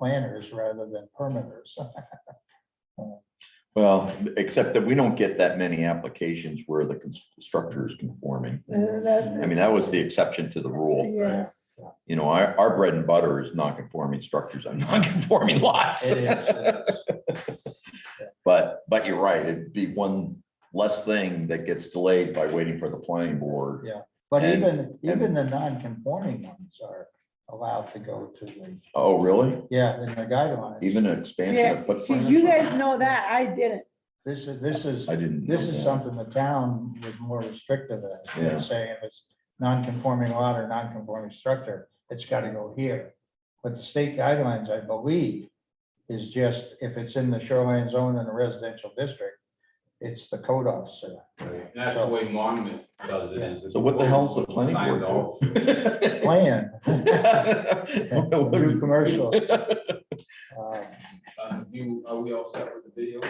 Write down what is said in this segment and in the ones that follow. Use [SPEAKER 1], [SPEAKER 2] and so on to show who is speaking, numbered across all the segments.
[SPEAKER 1] planners rather than permitters.
[SPEAKER 2] Well, except that we don't get that many applications where the cons- structure is conforming.
[SPEAKER 3] Uh,
[SPEAKER 2] I
[SPEAKER 3] that-
[SPEAKER 2] mean, that was the exception to the rule.
[SPEAKER 3] Yes,
[SPEAKER 2] You know, our, our bread and butter is non-conforming structures on non-conforming lots.
[SPEAKER 1] It is, it is.
[SPEAKER 2] But, but you're right, it'd be one less thing that gets delayed by waiting for the planning board.
[SPEAKER 1] Yeah. But
[SPEAKER 2] And-
[SPEAKER 1] even, even the non-conforming ones are allowed to go to the,
[SPEAKER 2] Oh, really?
[SPEAKER 1] yeah, in the guidelines.
[SPEAKER 2] Even an expansion
[SPEAKER 3] yeah,
[SPEAKER 2] of
[SPEAKER 3] so
[SPEAKER 2] footprint? or
[SPEAKER 3] you guys
[SPEAKER 2] something?
[SPEAKER 3] know that, I didn't,
[SPEAKER 1] This is, this is,
[SPEAKER 2] I didn't.
[SPEAKER 1] this
[SPEAKER 2] know
[SPEAKER 1] is
[SPEAKER 2] that.
[SPEAKER 1] something the town was more restrictive in.
[SPEAKER 2] Yeah.
[SPEAKER 1] They're saying if it's non-conforming lot or non-conforming structure, it's gotta go here. But the state guidelines, I believe, is just if it's in the shoreline zone in a residential district, it's the code officer.
[SPEAKER 4] And That's the way Monmouth does it. is it's-
[SPEAKER 2] So what the hell's the planning
[SPEAKER 4] Signed
[SPEAKER 2] board?
[SPEAKER 4] off.
[SPEAKER 2] do?
[SPEAKER 1] Plan,
[SPEAKER 2] What
[SPEAKER 1] new
[SPEAKER 2] is-
[SPEAKER 1] commercial. Uh,
[SPEAKER 4] Uh, you- Are we all set with the video?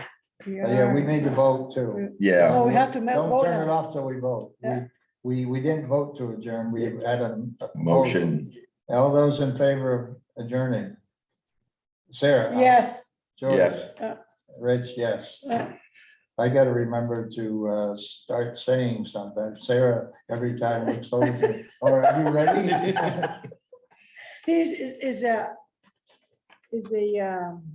[SPEAKER 3] you
[SPEAKER 1] but Oh, Yeah, we
[SPEAKER 3] are,
[SPEAKER 1] need to vote too.
[SPEAKER 2] Yeah.
[SPEAKER 3] Oh, we have to ma-
[SPEAKER 1] Don't
[SPEAKER 3] vote
[SPEAKER 1] turn it
[SPEAKER 3] now.
[SPEAKER 1] off till we vote. We-
[SPEAKER 3] Yeah.
[SPEAKER 1] We, we didn't vote to adjourn. We had a a
[SPEAKER 2] Motion,
[SPEAKER 1] All those in favor of adjourning? Sarah? aye.
[SPEAKER 3] yes,
[SPEAKER 1] George?
[SPEAKER 2] Yes.
[SPEAKER 3] Uh.
[SPEAKER 1] Rich, yes.
[SPEAKER 3] Uh.
[SPEAKER 1] I gotta remember to uh, start saying something. Sarah, every time we close, it, or are you ready?
[SPEAKER 3] this is, is a, is a, um.